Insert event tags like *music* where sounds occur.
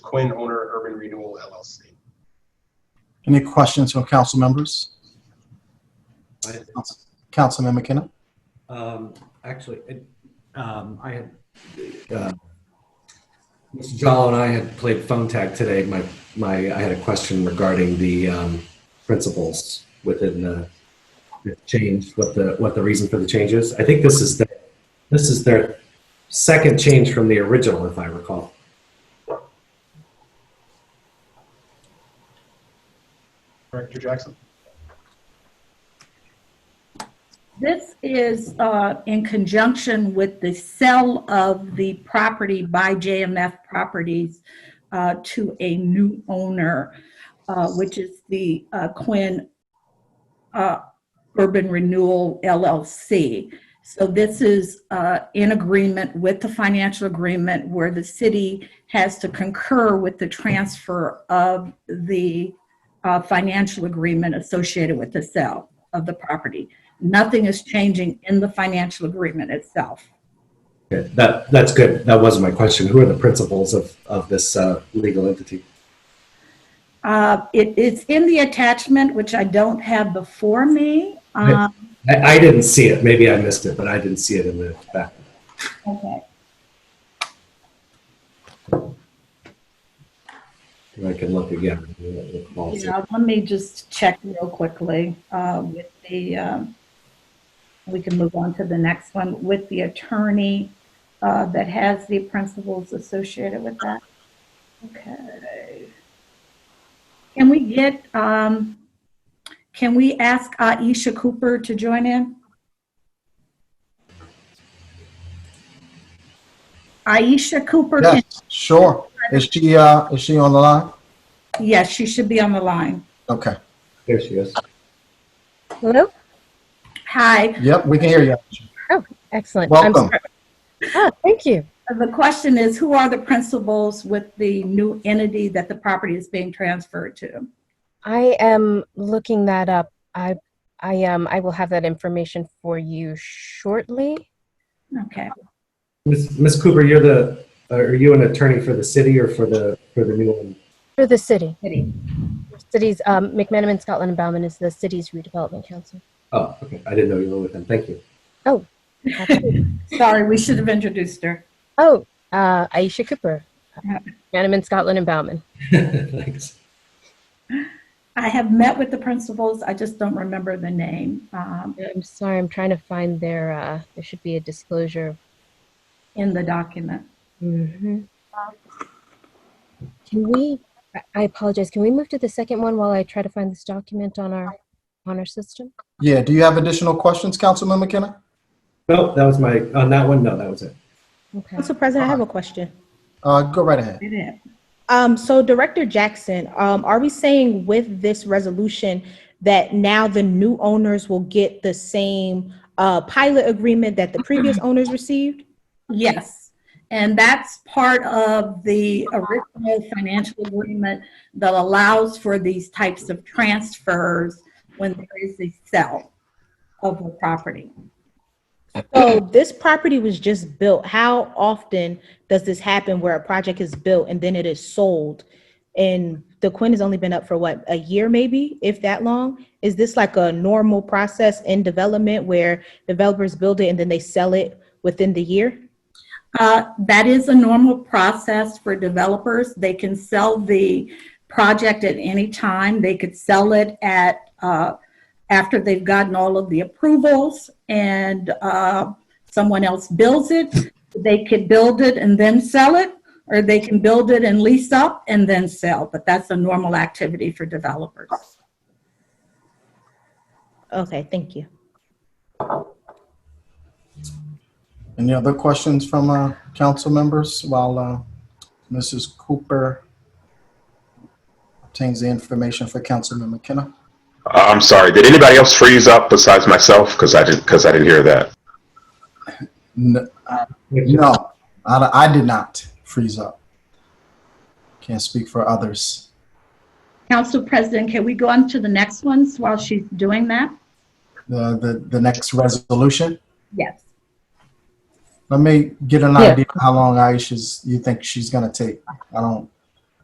Quinn, owner of Urban Renewal LLC. Any questions from council members? I did. Council- Councilman McKenna? Um, actually, it, um, I had, uh, Mr. Jallo and I had played phone tag today. My, my, I had a question regarding the, um, principles within the, the change, what the, what the reason for the change is. I think this is the, this is their second change from the original, if I recall. Director Jackson? This is uh, in conjunction with the sale of the property by JMF Properties uh, to a new owner, uh, which is the uh, Quinn uh, Urban Renewal LLC. So this is uh, in agreement with the financial agreement where the city has to concur with the transfer of the uh, financial agreement associated with the sale of the property nothing is changing in the financial agreement itself. Okay, That, that's good. That wasn't my question. Who are the principals of, of this, uh, legal entity? Uh, it, it's in the attachment, which I don't have before me. Um, I, I didn't see it. Maybe I missed it, but I didn't see it in the back. okay. I can look again. I don't recall. Yeah, let me just check real quickly uh, with the. Um, we can move on to the next one with the attorney uh, that has the principles associated with that. Okay. Can we get? Um, can we ask Aisha Cooper to join in? Aisha Cooper, can, Yes, sure. Is she, uh, is she on the line? yes, she should be on the line. Okay. There she is. Hello? Hi, Yep, we can hear you. Excellent. I'm Welcome. sorry. Ah, thank you. The question is, who are the principals with the new entity that the property is being transferred to? I am looking that up. I I um I will have that information for you shortly. Okay. Miss Miss Cooper, you're the, uh, are you an attorney for the city or for the, for the new one? For the city. City. Cities um McManaman, Scotland and Bauman is the city's redevelopment council. Oh, okay. I didn't know you were with them. Thank you. *laughs* Absolutely. Sorry, we should have introduced her. oh, uh Aisha Cooper. Yeah. McManaman, Scotland and Bauman. Thanks. I have met with the principals, I just don't remember the name. Um, I'm sorry, I'm trying to find their uh there should be a disclosure. in the document. Mhm. Can we I- I apologize. Can we move to the second one while I try to find this document on our on our system? Yeah, do you have additional questions, Councilman McKenna? No, that was my, on that one, no, that was it. Okay. Council President, I have a question. Uh, go right ahead. It is. Um, so Director Jackson, um, are we saying with this resolution that now the new owners will get the same, uh, pilot agreement that the previous owners received? Yes, and that's part of the original financial agreement that allows for these types of transfers when there is a sale of a property. So this property was just built. How often does this happen where a project is built and then it is sold? And the Quinn has only been up for what, a year maybe, if that long? Is this like a normal process in development where developers build it and then they sell it within the year? Uh, That is a normal process for developers. They can sell the project at any time. They could sell it at, uh, after they've gotten all of the approvals and uh, someone else builds it. They could build it and then sell it, or they can build it and lease up and then sell. But that's a normal activity for developers. Okay, thank you. Any other questions from, uh, council members while, uh, Mrs. Cooper obtains the information for Councilman McKenna? I'm sorry. Did anybody else freeze up besides myself? Because I didn't. Because I didn't hear that. No, No, I, I did not freeze up. Can't speak for others. Council President, can we go on to the next ones while she's doing that? The, the, the next resolution. Yes. Let me get an Yeah. idea how long Aisha's, you think she's gonna take. I don't,